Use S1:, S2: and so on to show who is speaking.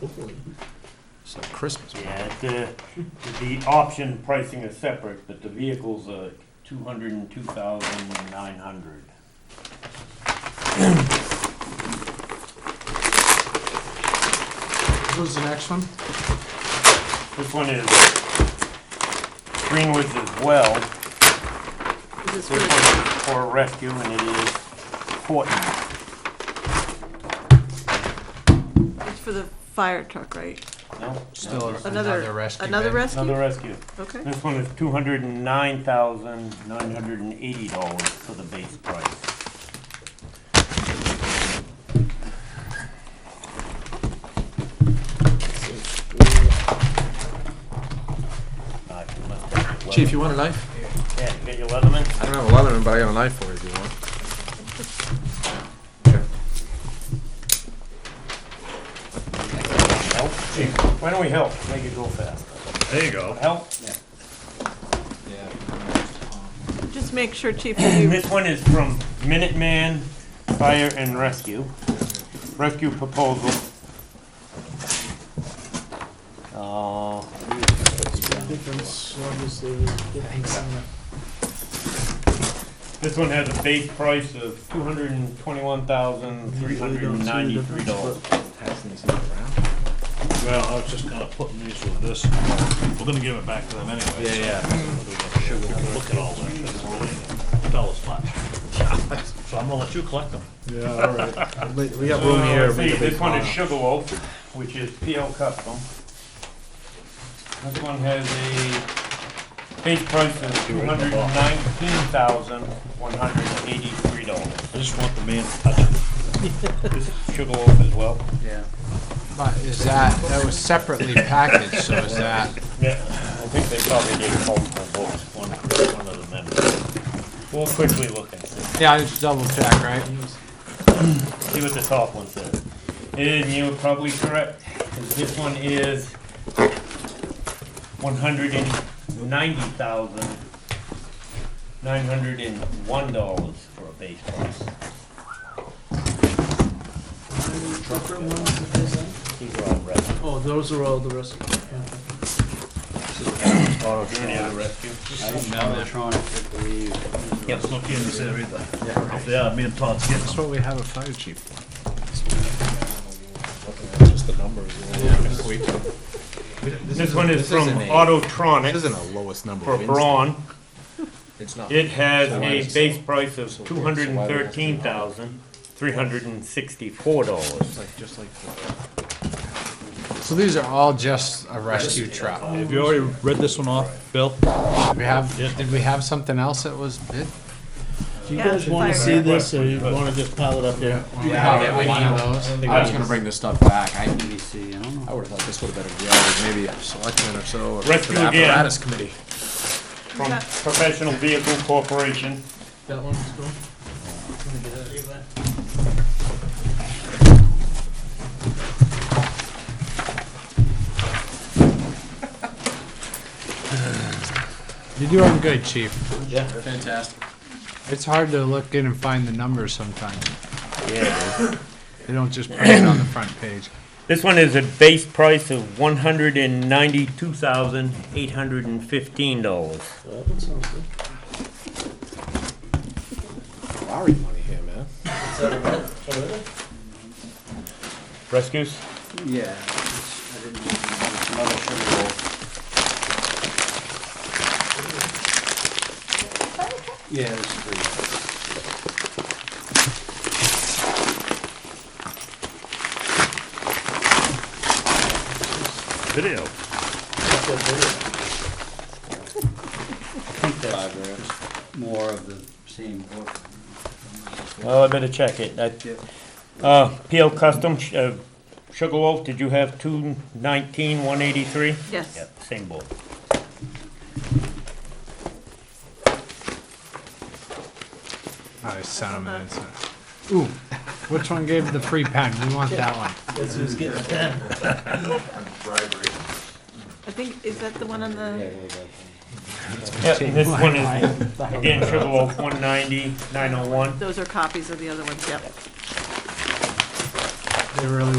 S1: It's like Christmas.
S2: Yeah, the, the option pricing is separate, but the vehicles are two hundred and two thousand nine hundred.
S3: Who's the next one?
S2: This one is Greenwood's as well. This
S4: Is this for
S2: one
S4: the-
S2: is for rescue and it is Horton.
S4: it's for the fire truck, right?
S2: No?
S1: Still another
S4: Another,
S1: rescue.
S4: another
S1: bid.
S2: Another
S4: rescue?
S2: rescue.
S4: Okay.
S2: This one is two hundred and nine thousand nine hundred and eighty dollars for the base price. Uh, if you want that
S1: Chief, you
S2: leather-
S1: want a knife?
S2: Yeah, you got your Leatherman?
S1: I don't have a Leatherman, but I got a knife for you if you want.
S2: Help? Chief, why don't we help? Make it go faster.
S5: There you go.
S2: Help?
S4: Just make sure, Chief,
S2: And
S4: you,
S2: This one is from Minuteman Fire and Rescue. Rescue proposal. Uh,
S3: I think that's obviously. Thanks.
S2: This one has a base price of two hundred and twenty-one thousand, three hundred and ninety-three dollars.
S5: Well, I was just kinda putting these with this. We're gonna give it back to them anyway. Yeah, yeah. Look at all that, that's really, tell us much. So I'm gonna let you collect them.
S3: Yeah, all right. We- We got room here. we
S2: Uh,
S3: can
S2: See,
S3: make
S2: this one is
S3: fun.
S2: Sugarloaf, which is PL Custom. This one has a base price of two hundred and nineteen thousand, one hundred and eighty-three dollars.
S5: I just want the man to touch it.
S2: This is Sugarloaf as well.
S6: But is that, that was separately packaged, so is that,
S2: Yeah, I think they probably did multiple books, one, one of them. We'll quickly look and see,
S6: yeah, I just double check, right?
S2: see what the top one says. And you're probably correct, 'cause this one is one hundred and ninety thousand, nine hundred and one dollars for a base price. These are all rescue.
S3: Oh, those are all the rest.
S2: Any other rescue?
S5: Let's look in and see if they- if they are, me and Todd's getting
S6: That's
S5: them.
S6: what we have a fire chief for.
S2: This one is
S6: This
S2: from
S6: isn't a-
S2: Autotronic.
S6: This isn't the lowest number.
S2: for
S6: of
S2: brawn.
S6: It's not.
S2: It has
S6: why
S2: a
S6: does-
S2: base price of
S6: so
S2: two
S6: why does
S2: hundred
S6: it
S2: and
S6: have to be
S2: thirteen thousand, three hundred and sixty-four dollars.
S6: Like, just like. the- So these are all just a rescue truck.
S5: Have you already read this one off, Bill?
S6: Did we have, did we have something else that was bid?
S3: Do you
S4: Yeah,
S3: guys
S4: the
S3: wanna
S4: fire
S3: see
S4: truck.
S3: this, or you wanna just pile it up there?
S6: Do we have any of those?
S7: I was gonna bring this stuff back, I, I don't know.
S6: I would've thought this would've been a, yeah, maybe a selectman or so. or
S2: Rescue
S6: the
S2: again.
S6: Apparatus committee.
S2: From Professional Vehicle Corporation.
S3: That one's cool.
S6: You're doing good, chief.
S2: Yeah.
S7: Fantastic.
S6: It's hard to look in and find the numbers sometimes.
S2: Yeah.
S6: They don't just put it on the front page.
S2: This one is a base price of one hundred and ninety-two thousand, eight hundred and fifteen dollars.
S3: That one sounds good.
S6: Lowry money here, man.
S2: Rescues?
S7: Yeah. I didn't know there was another sugar bowl. Yeah, this is pretty.
S5: Video.
S7: Five grams. More of the same book.
S2: Well, I better check it. I-
S7: Yeah.
S2: Uh, PL Custom, Sh- uh, Sugarloaf, did you have two nineteen, one eighty-three?
S4: yes.
S2: Yep, same board.
S6: I sent him an instant. Ooh, which one gave the free pen? We want that one.
S3: Guess who's getting ten?
S4: I think, is that the one on the,
S2: Yeah, this one is, again, Sugarloaf, one ninety, nine oh one.
S4: those are copies of the other ones, yep.
S6: They really